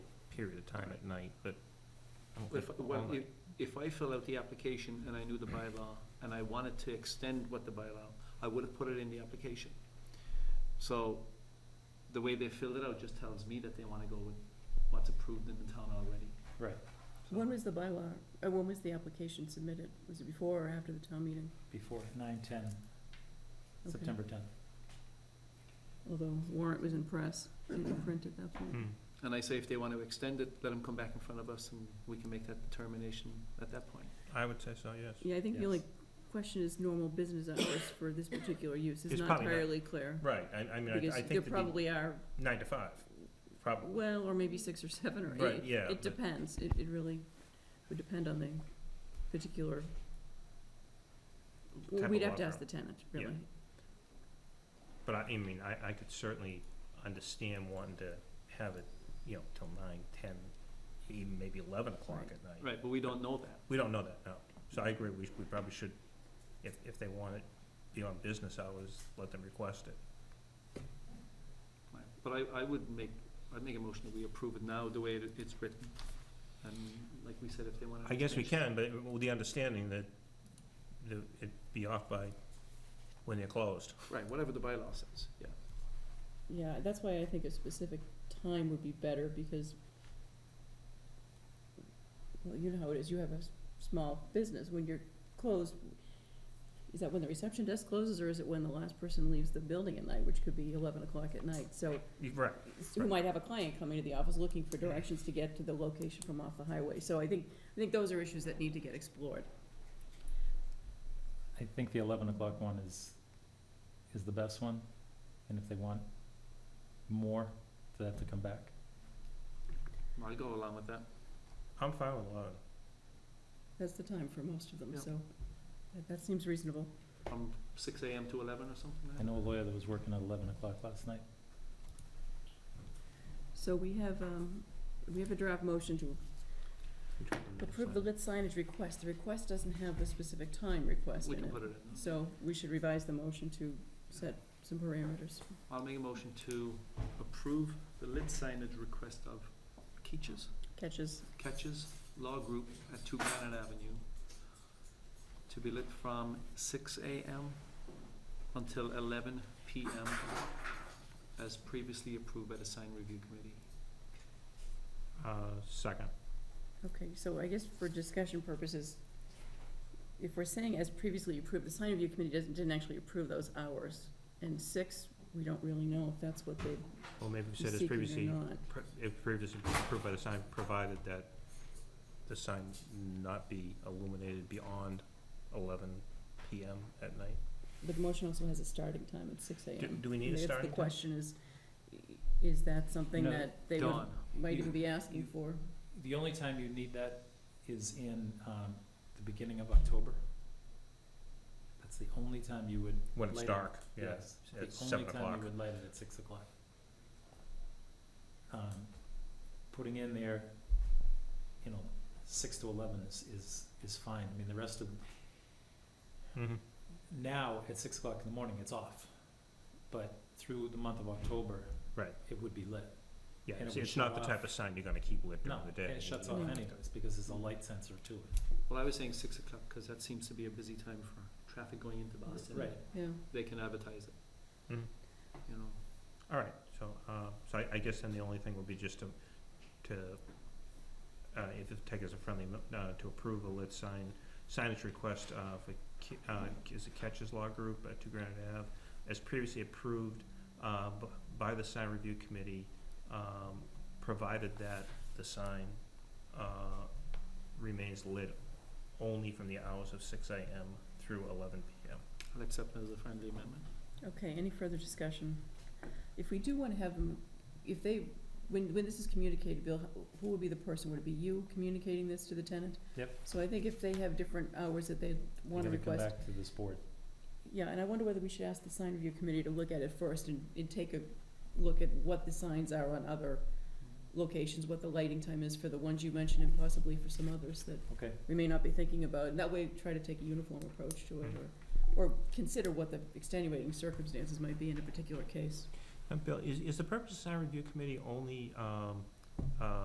period of time at night, but. I don't If, think all well, if, night. if I fill out the application and I knew the bylaw, and I wanted to extend what the bylaw, I would have put it in the application. So, the way they filled it out just tells me that they wanna go with what's approved in the town already. Right, So- When was the bylaw, uh, when was the application submitted? Was it before or after the town meeting? Before, nine, ten, Okay. September tenth. Although warrant was in press, didn't print at that point. Hmm. And I say if they wanna extend it, let them come back in front of us and we can make that determination at that point. I would say so, Mm-hmm. yes. Yeah, I think the only Yes. question is normal business hours for this particular use. It's It's not probably not- entirely clear. Right, I, I mean, I- Because I there think it'd be probably are, nine to five, probably. well, or maybe six or seven or Right, eight. yeah, It but- depends. It, it really would depend on the particular, Type well, of we'd law have to ask firm. the tenant, Yeah. really. But I, I mean, I, I could certainly understand wanting to have it, you know, till nine, ten, even maybe eleven o'clock Right. at night. Right, but we don't know that. We don't know that, no. So I agree, we, we probably should, if, if they want it beyond business hours, let them request it. Right, But I, I would make, I'd make a motion that we approve it now, the way it- it's written. And like we said, if they wanna. I guess we extension- can, but with the understanding that the, it'd be off by when they're closed. Right, whatever the bylaw says, yeah. Yeah, that's why I think a specific time would be better, because, well, you know how it is, you have a s- small business, when you're closed, is that when the reception desk closes, or is it when the last person leaves the building at night, which could be eleven o'clock at night, so, You- Right, s- who might have a client coming to the office looking for directions to get to the location from off the highway, so I think, I think those are issues that need to get explored. I think the eleven o'clock one is, is the best one, and if they want more, they have to come back. I'll go along with that. I'm fine with eleven. That's the time for most of them, Yeah. so, that, that seems reasonable. From six AM to eleven or something like I that? know a lawyer that was working at eleven o'clock last night. So we have, um, we have a draft motion to Approve the lit signage request. The request doesn't have the specific time request We in can it. put it in. So we should revise the motion to set some parameters. I'll make a motion to approve the lit signage request of Keaches, Catches, Catches Law Group at Two Granite Avenue to be lit from six AM until eleven PM as previously approved by the sign review committee. Uh, second. okay, so I guess for discussion purposes, if we're saying as previously approved, the sign review committee doesn't, didn't actually approve those hours. And six, we don't really know if that's what they'd Well, maybe we be said as seeking previously, or not. pre- if previously approved by the sign, provided that the sign not be illuminated beyond eleven PM at night. But the motion also has a starting time at six AM. Do, do we need a That's starting The time? question is, is that something No. that they would, Dawn, might you- even be asking you- for? The only time you need that is in, um, the beginning of October. That's the only time you would. When it's light it. dark, yeah, Yes, at the only seven time o'clock. you would light it at six o'clock. Um, putting in there, you know, six to eleven is, is, is fine, I mean, the rest of, Mm-hmm. now, at six o'clock in the morning, it's off. But through the month of October. Right. It would be lit, Yeah, And it it's, would it's not the shut type of sign you're gonna keep lit no, during the day. and it shuts off Mm. anyways, because there's a light sensor to it. well, I was saying six o'clock, cause that seems to be a busy time for traffic going into Boston. Right. Mm-hmm. Yeah. They can advertise it, Mhm. you know. All right, so, uh, so I, I guess then the only thing would be just to, to, uh, if it take as a friendly, mo- uh, to approve a lit sign, signage request, uh, for, Ki- uh, is it Catches Law Group at Two Granite Ave, as previously approved, uh, b- by the sign review committee, um, provided that the sign, uh, remains lit only from the hours of six AM through eleven PM. I'll accept it as a friendly amendment. Okay, any further discussion? If we do wanna have them, if they, when, when this is communicated, Bill, who would be the person? Would it be you communicating this to the tenant? Yep. So I think if they have different hours that they wanna You're request, gonna come back to this board. yeah, and I wonder whether we should ask the sign review committee to look at it first and, and take a look at what the signs are on other locations, what the lighting time is for the ones you mentioned and possibly for some others that Okay. we may not be thinking about, and that way try to take a uniform approach to it or, or consider what the extenuating circumstances might be in a particular case. And Bill, is, is the purpose of sign review committee only, um, uh,